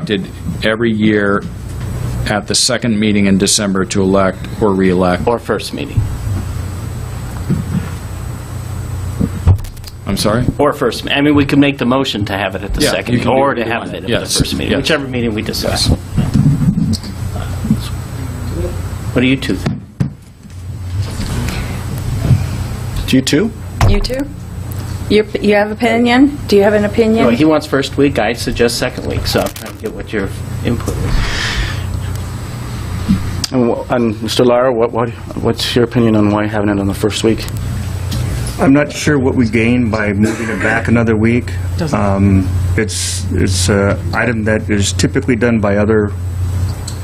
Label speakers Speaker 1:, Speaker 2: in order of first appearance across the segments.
Speaker 1: conducted every year at the second meeting in December to elect or reelect.
Speaker 2: or first meeting,
Speaker 1: I'm sorry?
Speaker 2: or first, I mean, we could make the motion to have it at the
Speaker 1: Yeah, you
Speaker 2: second,
Speaker 1: can do
Speaker 2: or
Speaker 1: what
Speaker 2: to
Speaker 1: you
Speaker 2: have
Speaker 1: want.
Speaker 2: it at the
Speaker 1: Yes,
Speaker 2: first meeting,
Speaker 1: yes.
Speaker 2: whichever meeting we decide.
Speaker 1: Yes.
Speaker 2: What do you two think?
Speaker 3: Do you too?
Speaker 4: You too? You, you have opinion? Do you have an
Speaker 2: Well, he
Speaker 4: opinion?
Speaker 2: wants first week, I suggest second week, so I'm trying to get what your input is.
Speaker 3: And, wh- and Mr. Lara, what, what, what's your opinion on why having it on the first week?
Speaker 5: I'm not sure what we gain by moving it back another week. Um, It's, it's an item that is typically done by other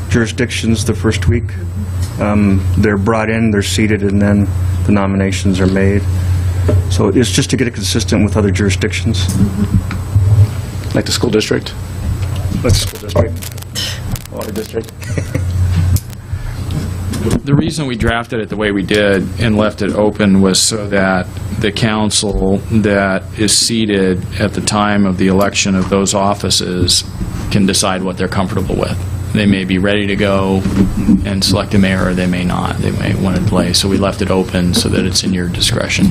Speaker 5: jurisdictions the first week. Um, They're brought in, they're seated, and then the nominations are made. So it's just to get it consistent with other jurisdictions.
Speaker 3: Like the school district?
Speaker 5: Like the school district.
Speaker 3: Water district?
Speaker 1: The reason we drafted it the way we did and left it open was so that the council that is seated at the time of the election of those offices can decide what they're comfortable with. They may be ready to go and select a mayor, or they may not. They may want to delay. So we left it open so that it's in your discretion.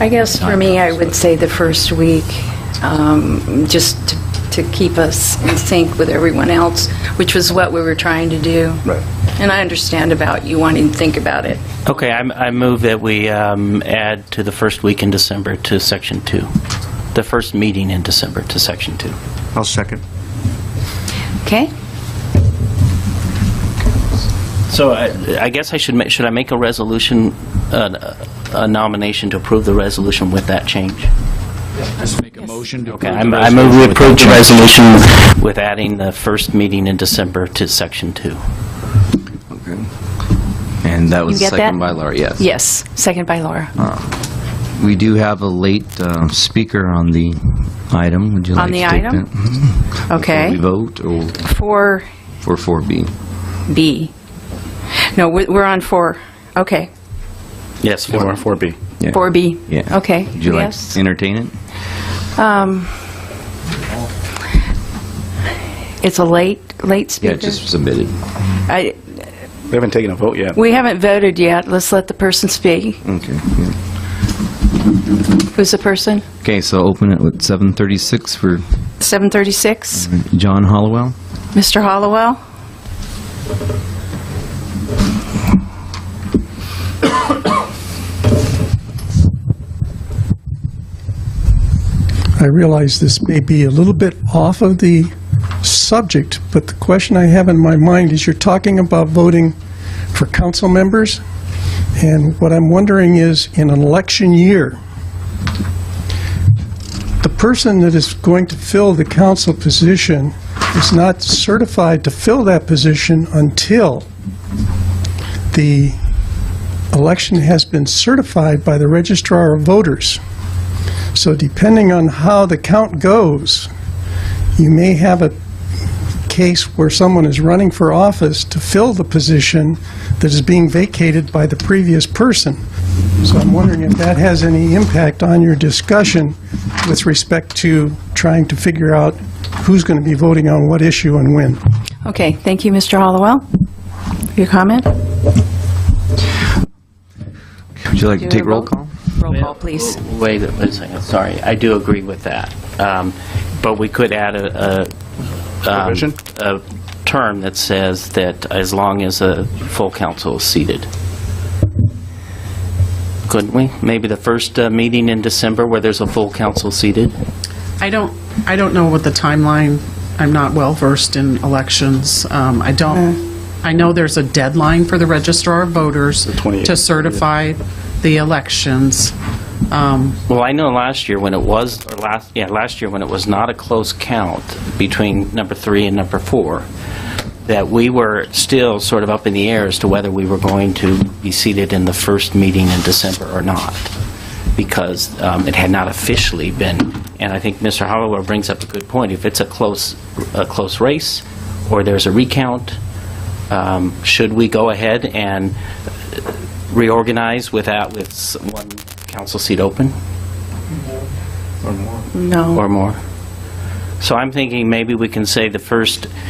Speaker 4: I guess for me, I would say the first week, um, just to to keep us in sync with everyone else, which was what we were trying to do.
Speaker 5: Right.
Speaker 4: And I understand about you wanting to think about it.
Speaker 2: Okay, I'm- I move that we um, add to the first week in December to section two, the first meeting in December to section two.
Speaker 5: I'll second.
Speaker 4: Okay?
Speaker 2: So I I guess I should, ma- should I make a resolution, uh, a nomination to approve the resolution with that change?
Speaker 1: Just make a motion to
Speaker 2: Okay,
Speaker 1: approve the
Speaker 2: I'm- I move we
Speaker 1: resolution.
Speaker 2: approve the resolution with adding the first meeting in December to section two.
Speaker 6: And that
Speaker 4: You
Speaker 6: was
Speaker 4: get that?
Speaker 6: second by Laura, yes.
Speaker 4: Yes, second by Laura.
Speaker 6: We do have a late um, speaker on the item. Would you
Speaker 4: On
Speaker 6: like
Speaker 4: the
Speaker 6: to take
Speaker 4: item?
Speaker 6: that? Mhm. Before we
Speaker 4: Okay.
Speaker 6: vote or
Speaker 4: For
Speaker 6: for 4B?
Speaker 4: B. No, we- we're on four. Okay.
Speaker 2: Yes,
Speaker 3: Or
Speaker 2: four.
Speaker 3: 4B?
Speaker 6: Yeah.
Speaker 4: 4B.
Speaker 6: Yeah.
Speaker 4: Okay.
Speaker 6: Would you like
Speaker 4: Yes.
Speaker 6: to entertain it?
Speaker 4: It's a late, late
Speaker 6: Yeah,
Speaker 4: speaker.
Speaker 6: it just submitted.
Speaker 4: I-
Speaker 3: We haven't taken a vote yet.
Speaker 4: We haven't voted yet. Let's let the person speak.
Speaker 6: Okay. yeah.
Speaker 4: Who's the person?
Speaker 6: Okay, so open it with 7:36 for
Speaker 4: 736,
Speaker 6: John Hollowell.
Speaker 4: Mr. Hollowell?
Speaker 7: I realize this may be a little bit off of the subject, but the question I have in my mind is you're talking about voting for council members, and what I'm wondering is, in an election year, the person that is going to fill the council position is not certified to fill that position until the election has been certified by the registrar of voters. So depending on how the count goes, you may have a case where someone is running for office to fill the position that is being vacated by the previous person. So I'm wondering if that has any impact on your discussion with respect to trying to figure out who's going to be voting on what issue and when.
Speaker 4: Okay, thank you, Mr. Hollowell. Your comment?
Speaker 6: Would you like to
Speaker 4: Do
Speaker 6: take
Speaker 4: a
Speaker 6: roll call?
Speaker 4: Roll call, please.
Speaker 2: Wait, a- wait a second, sorry, I do agree with that. Um, But we could add a, a-
Speaker 3: Provision?
Speaker 2: a term that says that as long as a full council is seated. Couldn't we? Maybe the first uh, meeting in December where there's a full council seated?
Speaker 8: I don't, I don't know what the timeline, I'm not well versed in elections. Um, I don't, I know there's a deadline for the registrar of voters
Speaker 3: 28th.
Speaker 8: to certify the elections. Um,
Speaker 2: Well, I know last year when it was, or last, yeah, last year when it was not a close count between number three and number four, that we were still sort of up in the air as to whether we were going to be seated in the first meeting in December or not, because um, it had not officially been, and I think Mr. Hollowell brings up a good point, if it's a close, a close race, or there's a recount, um, should we go ahead and reorganize without, with s- one council seat open?
Speaker 4: No.
Speaker 2: or more. So I'm thinking maybe we can say the first